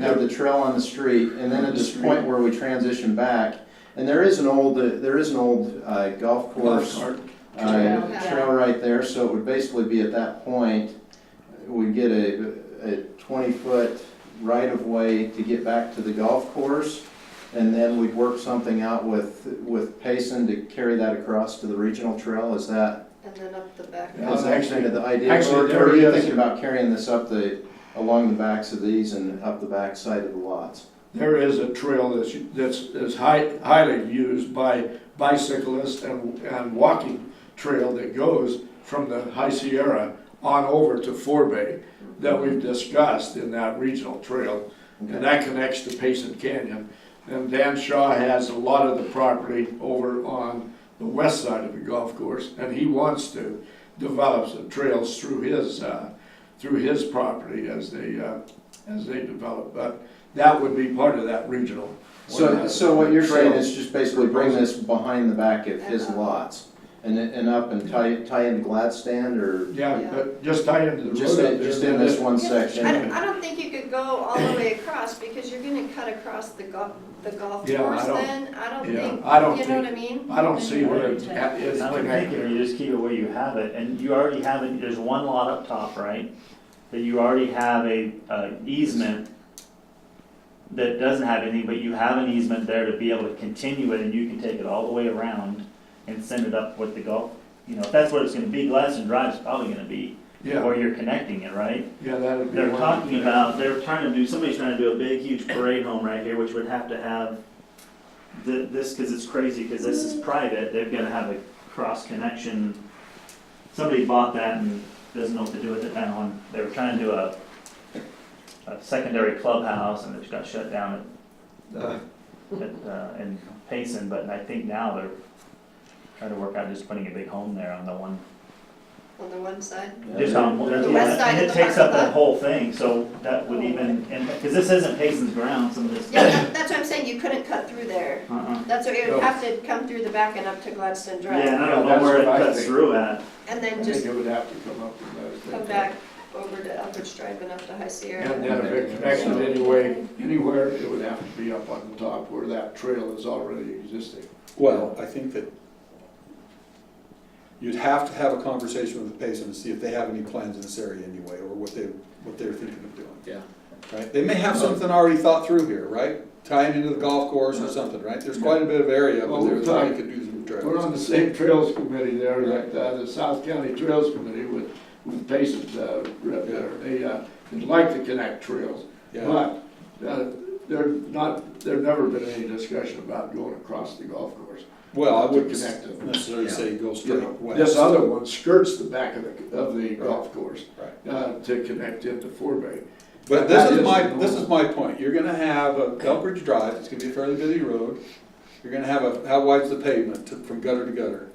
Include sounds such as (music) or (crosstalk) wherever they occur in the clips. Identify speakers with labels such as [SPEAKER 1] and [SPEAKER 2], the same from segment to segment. [SPEAKER 1] have the trail on the street, and then at this point where we transition back, and there is an old, uh, there is an old uh, golf course
[SPEAKER 2] Golf cart.
[SPEAKER 1] uh,
[SPEAKER 3] Yeah.
[SPEAKER 1] trail right there, so it would basically be at that point, we'd get a, a twenty-foot right-of-way to get back to the golf course, and then we'd work something out with, with Payson to carry that across to the regional trail, is that?
[SPEAKER 3] And then up the back.
[SPEAKER 2] Yeah,
[SPEAKER 1] is
[SPEAKER 2] it's
[SPEAKER 1] that
[SPEAKER 2] Uh, actually-
[SPEAKER 1] kind of the idea,
[SPEAKER 2] actually,
[SPEAKER 1] or
[SPEAKER 2] there
[SPEAKER 1] or are you
[SPEAKER 2] is-
[SPEAKER 1] thinking about carrying this up the, along the backs of these and up the back side of the lots?
[SPEAKER 2] There is a trail that's, that's, is high, highly used by bicyclists and, and walking trail that goes from the High Sierra on over to Forbay that we've discussed in that regional trail. And that connects to Payson Canyon. And Dan Shaw has a lot of the property over on the west side of the golf course, and he wants to develop some trails through his, uh, through his property as they, uh, as they develop. But that would be part of that regional. uh,
[SPEAKER 1] So, so what you're saying
[SPEAKER 2] Trail.
[SPEAKER 1] is just basically bring this behind the back of his lots and, then- and up and tie, tie into Gladstand or
[SPEAKER 2] Yeah, but just tie into the road.
[SPEAKER 1] just,
[SPEAKER 2] up there,
[SPEAKER 1] just
[SPEAKER 2] then
[SPEAKER 1] in this
[SPEAKER 2] it-
[SPEAKER 1] one
[SPEAKER 3] I
[SPEAKER 1] section?
[SPEAKER 3] don't, I don't think you could go all the way across, because you're gonna cut across the golf, the golf
[SPEAKER 2] Yeah, I
[SPEAKER 3] course
[SPEAKER 2] don't-
[SPEAKER 3] then, I don't
[SPEAKER 2] yeah,
[SPEAKER 3] think,
[SPEAKER 2] I don't
[SPEAKER 3] you know
[SPEAKER 2] think-
[SPEAKER 3] what I mean?
[SPEAKER 2] I don't see where it is
[SPEAKER 4] I would think if
[SPEAKER 2] connected.
[SPEAKER 4] you just keep it where you have it, and you already have it, there's one lot up top, right? That you already have a, uh, easement that doesn't have anything, but you have an easement there to be able to continue it, and you can take it all the way around and send it up with the golf, you know, if that's what it's gonna be, Gladstone Drive's probably gonna be,
[SPEAKER 2] Yeah,
[SPEAKER 4] where you're connecting it, right?
[SPEAKER 2] yeah, that'd be.
[SPEAKER 4] They're
[SPEAKER 2] one.
[SPEAKER 4] talking about, they're trying to do, somebody's trying to do a big, huge parade home right here, which would have to have th- this, because it's crazy, because this is private, they've got to have a cross connection. Somebody bought that and doesn't know what to do with it now, and they were trying to do a, a secondary clubhouse, and it got shut down
[SPEAKER 2] Uh,
[SPEAKER 4] at, at, uh, in Payson, but I think now they're trying to work out just putting a big home there on the one
[SPEAKER 3] On the one
[SPEAKER 2] (coughs)
[SPEAKER 3] side,
[SPEAKER 4] just on, that's
[SPEAKER 3] The
[SPEAKER 4] the-
[SPEAKER 3] west side
[SPEAKER 4] and
[SPEAKER 3] of
[SPEAKER 4] it
[SPEAKER 3] the
[SPEAKER 4] takes
[SPEAKER 3] parking
[SPEAKER 4] up that
[SPEAKER 3] lot.
[SPEAKER 4] whole thing, so that would even, and, because this isn't Payson's ground, some of this.
[SPEAKER 3] yeah, that, that's what I'm saying, you couldn't cut through there,
[SPEAKER 4] Uh-uh.
[SPEAKER 3] that's what, you
[SPEAKER 2] No.
[SPEAKER 3] would have to come through the back and up to Gladstone
[SPEAKER 4] Yeah,
[SPEAKER 3] Drive,
[SPEAKER 4] and I don't know
[SPEAKER 2] That's
[SPEAKER 4] where it
[SPEAKER 2] what I
[SPEAKER 4] cuts
[SPEAKER 2] think.
[SPEAKER 4] through at.
[SPEAKER 3] and
[SPEAKER 2] I
[SPEAKER 3] then
[SPEAKER 2] think
[SPEAKER 3] just
[SPEAKER 2] it would have to come up with those.
[SPEAKER 3] come back over to Upper Drive and up to High Sierra.
[SPEAKER 2] And then if it connected anyway, anywhere, it would have to be up on the top where that trail is already existing.
[SPEAKER 5] Well, I think that you'd have to have a conversation with the Payson to see if they have any plans in this area anyway, or what they, what they're thinking of doing.
[SPEAKER 2] Yeah.
[SPEAKER 5] Right, they may have something already thought through here, right? Tying into the golf course or something, right? There's quite a bit of area
[SPEAKER 2] Well,
[SPEAKER 5] where
[SPEAKER 2] we're
[SPEAKER 5] they
[SPEAKER 2] talking-
[SPEAKER 5] could do some
[SPEAKER 2] We're on
[SPEAKER 5] trails.
[SPEAKER 2] the same trails committee there, like uh, the South County Trails Committee with, with Payson's, uh, rep there. They, uh, they'd like to connect trails,
[SPEAKER 5] Yeah,
[SPEAKER 2] but, uh, there not, there never been any discussion about going across the golf course.
[SPEAKER 5] well, I wouldn't
[SPEAKER 2] Connect them.
[SPEAKER 5] necessarily
[SPEAKER 2] Yeah.
[SPEAKER 5] say go
[SPEAKER 2] You
[SPEAKER 5] straight
[SPEAKER 2] know,
[SPEAKER 5] west.
[SPEAKER 2] This other one skirts the back of the, of the golf course,
[SPEAKER 5] Right.
[SPEAKER 2] uh, to connect into Forbay.
[SPEAKER 5] But this
[SPEAKER 2] That
[SPEAKER 5] is
[SPEAKER 2] is
[SPEAKER 5] my,
[SPEAKER 2] the
[SPEAKER 5] this
[SPEAKER 2] norm.
[SPEAKER 5] is my point, you're gonna have a Elbridge Drive, it's gonna be a fairly busy road, you're gonna have a, how wide's the pavement to- from gutter to gutter?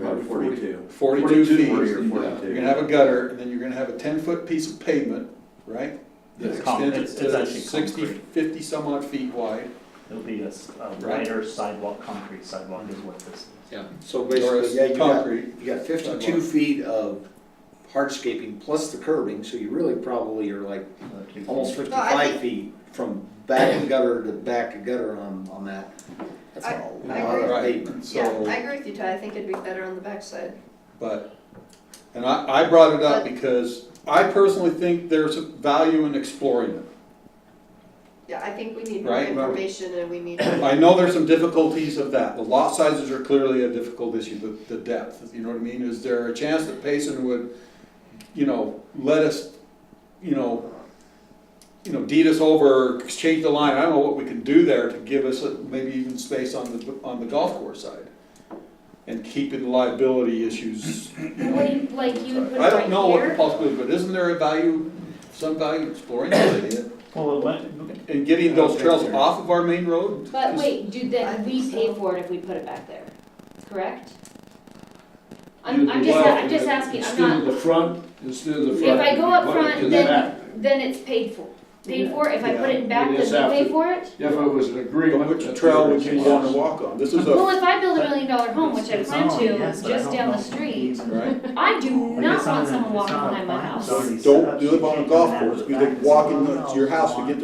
[SPEAKER 2] Probably 42.
[SPEAKER 5] Forty-two
[SPEAKER 2] 42
[SPEAKER 5] feet,
[SPEAKER 2] or 42.
[SPEAKER 5] you're gonna have a gutter, and then you're gonna have a ten-foot piece of pavement, right? That
[SPEAKER 4] It's con-
[SPEAKER 5] extends
[SPEAKER 4] it's- it's
[SPEAKER 5] to
[SPEAKER 4] actually
[SPEAKER 5] sixty,
[SPEAKER 4] concrete.
[SPEAKER 5] fifty some odd feet wide,
[SPEAKER 4] It'll be a s- a wider sidewalk, concrete sidewalk is what this is.
[SPEAKER 6] So
[SPEAKER 5] or
[SPEAKER 6] basically, yeah,
[SPEAKER 5] a
[SPEAKER 6] you got,
[SPEAKER 5] concrete.
[SPEAKER 6] you got fifty-two feet of hardscaping plus the curbing, so you really probably are like
[SPEAKER 4] Uh,
[SPEAKER 6] almost fifty-five feet from back to gutter to back to gutter on, on that. That's
[SPEAKER 3] I-
[SPEAKER 6] a
[SPEAKER 3] I
[SPEAKER 6] lot of
[SPEAKER 3] agree.
[SPEAKER 6] pavement.
[SPEAKER 3] Yeah, I
[SPEAKER 5] So,
[SPEAKER 3] agree with you, Ty, I think it'd be better on the backside.
[SPEAKER 5] but, and I, I brought it up because I personally think there's a value in exploring it.
[SPEAKER 3] Yeah, I think we need more
[SPEAKER 5] Right, right.
[SPEAKER 3] information and
[SPEAKER 2] (coughs)
[SPEAKER 3] we need.
[SPEAKER 5] I know there's some difficulties of that. The lot sizes are clearly a difficult issue, the, the depth, you know what I mean? Is there a chance that Payson would, you know, let us, you know, you know, deed us over, exchange the line, I don't know what we can do there to give us a- maybe even space on the, on the golf course side? And keeping liability issues, you know?
[SPEAKER 7] Like, like you would put it
[SPEAKER 5] I don't know
[SPEAKER 7] right
[SPEAKER 5] what the
[SPEAKER 7] here?
[SPEAKER 5] possibility, but isn't there a value, some value in exploring that idea?
[SPEAKER 4] Well, it went-
[SPEAKER 5] And getting those trails off of our main road?
[SPEAKER 7] But
[SPEAKER 5] Just-
[SPEAKER 7] wait, do
[SPEAKER 3] I
[SPEAKER 7] then we
[SPEAKER 3] think
[SPEAKER 7] pay
[SPEAKER 3] so.
[SPEAKER 7] for it if we put it back there, correct?
[SPEAKER 2] You-
[SPEAKER 7] I'm, I'm just,
[SPEAKER 2] well,
[SPEAKER 7] I'm just asking, I'm
[SPEAKER 2] Instead of
[SPEAKER 7] not,
[SPEAKER 2] the front, instead of the
[SPEAKER 7] If
[SPEAKER 2] front.
[SPEAKER 7] I go up
[SPEAKER 2] put it
[SPEAKER 7] front,
[SPEAKER 2] to the
[SPEAKER 7] then-
[SPEAKER 2] back.
[SPEAKER 7] then it's paid for, paid for, if I put it back,
[SPEAKER 2] Yeah, it is
[SPEAKER 7] does it
[SPEAKER 2] after-
[SPEAKER 7] pay for it?
[SPEAKER 2] If it was an agreement.
[SPEAKER 5] Which
[SPEAKER 2] that
[SPEAKER 5] trail
[SPEAKER 2] there
[SPEAKER 5] would you
[SPEAKER 2] was-
[SPEAKER 5] want to walk on? This is
[SPEAKER 7] Well,
[SPEAKER 5] a,
[SPEAKER 7] if I build a million dollar home, which I
[SPEAKER 4] It's
[SPEAKER 7] plan
[SPEAKER 4] on,
[SPEAKER 7] to,
[SPEAKER 4] yes, but I
[SPEAKER 7] just
[SPEAKER 4] don't
[SPEAKER 7] down
[SPEAKER 4] know
[SPEAKER 7] the
[SPEAKER 4] if it's
[SPEAKER 7] street,
[SPEAKER 4] easement.
[SPEAKER 5] right?
[SPEAKER 7] I do
[SPEAKER 4] Like,
[SPEAKER 7] not
[SPEAKER 4] it's on
[SPEAKER 7] want
[SPEAKER 4] a-
[SPEAKER 7] someone
[SPEAKER 4] it's
[SPEAKER 7] walking
[SPEAKER 4] on a
[SPEAKER 7] behind my
[SPEAKER 4] plan.
[SPEAKER 7] house.
[SPEAKER 4] It's already set
[SPEAKER 5] Don't
[SPEAKER 4] up.
[SPEAKER 5] do
[SPEAKER 4] You
[SPEAKER 5] it on a
[SPEAKER 4] can't
[SPEAKER 5] golf
[SPEAKER 4] come out
[SPEAKER 5] course,
[SPEAKER 4] of the
[SPEAKER 5] because
[SPEAKER 4] back.
[SPEAKER 5] walking to your house to get